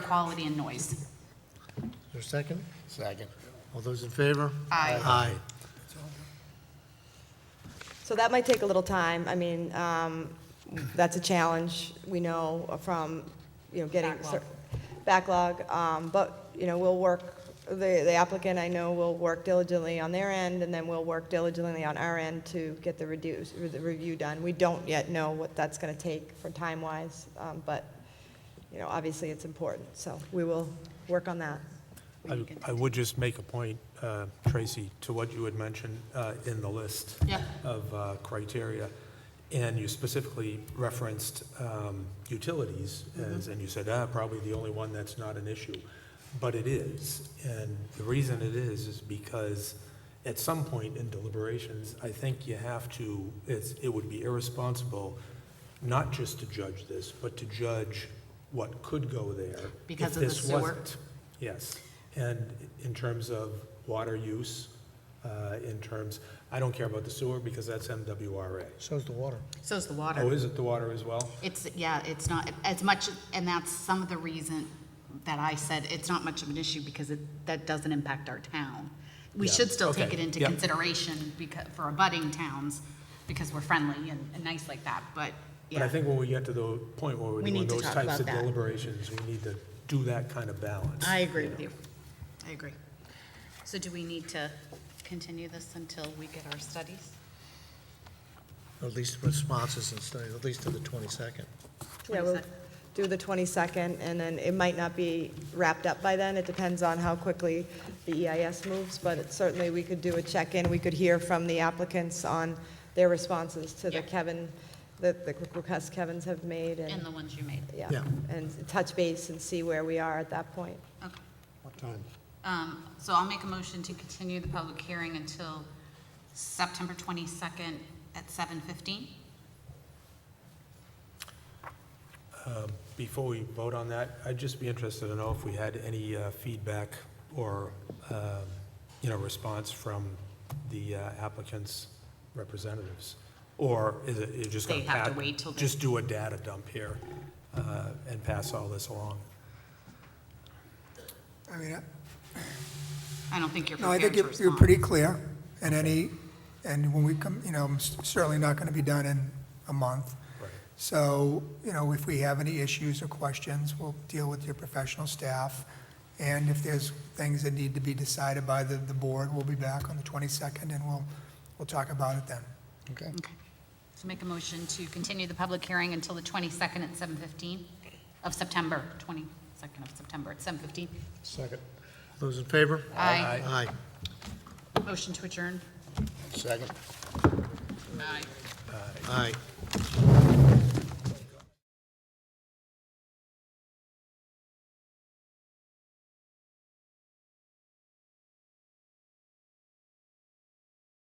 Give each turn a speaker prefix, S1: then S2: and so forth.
S1: quality, and noise.
S2: Is there a second?
S3: Second.
S2: All those in favor?
S1: Aye.
S2: Aye.
S4: So that might take a little time. I mean, um, that's a challenge, we know from, you know, getting. cer- Backlog, um, but, you know, we'll work, the the applicant, I know, will work diligently on their end, and then we'll work diligently on our end to get the reduce, the review done. We don't yet know what that's gonna take for time-wise, um, but, you know, obviously it's important, so we will work on that.
S5: I- I would just make a point, uh, Tracy, to what you had mentioned uh, in the list
S1: Yeah.
S5: of uh, criteria, and you specifically referenced um, utilities,
S1: Mm-hmm.
S5: as- and you said, ah, probably the only one that's not an issue, but it is. And the reason it is, is because at some point in deliberations, I think you have to, it's, it would be irresponsible not just to judge this, but to judge what could go there. if
S1: Because of the
S5: this
S1: sewer.
S5: wasn't. Yes, and in terms of water use, uh, in terms, I don't care about the sewer because that's MWRA.
S2: So's the water.
S1: So's the water.
S5: Oh, is it the water as well?
S1: It's, yeah, it's not, as much, and that's some of the reason that I said it's not much of an issue because it, that doesn't impact our town. We
S5: Yeah,
S1: should still take it
S5: okay,
S1: into
S5: yeah.
S1: consideration because, for abutting towns, because we're friendly and, and nice like that, but,
S5: But I
S1: yeah.
S5: think when we get to the point where we're
S1: We
S5: doing
S1: need to
S5: those
S1: talk
S5: types
S1: about
S5: of
S1: that.
S5: deliberations, we need to do that kind of balance.
S1: I agree with you. I agree. So do we need to continue this until we get our studies?
S2: At least responses and studies, at least to the 22nd.
S4: Yeah, we'll
S1: 22nd.
S4: do the 22nd, and then it might not be wrapped up by then. It depends on how quickly the EIS moves, but it- certainly we could do a check-in. We could hear from the applicants on their responses to the
S1: Yeah.
S4: Kevin, the the requests Kevin's have made,
S1: And
S4: and,
S1: the ones you made?
S4: yeah,
S2: Yeah.
S4: and touch base and see where we are at that point.
S1: Okay.
S2: What time?
S1: Um, So I'll make a motion to continue the public hearing until September 22nd at 7:15?
S5: Before we vote on that, I'd just be interested to know if we had any uh, feedback or, um, you know, response from the uh, applicant's representatives? Or is it, you're just gonna?
S1: They have to
S5: pat-
S1: wait till they-
S5: Just do a data dump here uh, and pass all this along?
S3: I mean, I-
S1: I don't think you're
S3: no, I
S1: prepared
S3: think
S1: to
S3: you're,
S1: respond.
S3: you're pretty clear, and any, and when we come, you know, I'm s- certainly not gonna be done in a month.
S5: Right.
S3: So, you know, if we have any issues or questions, we'll deal with your professional staff. And if there's things that need to be decided by the, the board, we'll be back on the twenty-second, and we'll, we'll talk about it then.
S2: Okay.
S1: Okay. So make a motion to continue the public hearing until the 22nd at 7:15 of September, 22nd of September at 7:15.
S2: Second. Those in favor?
S1: Aye.
S2: Aye.
S1: Motion to adjourn?
S6: Second.
S1: Aye.
S2: Aye.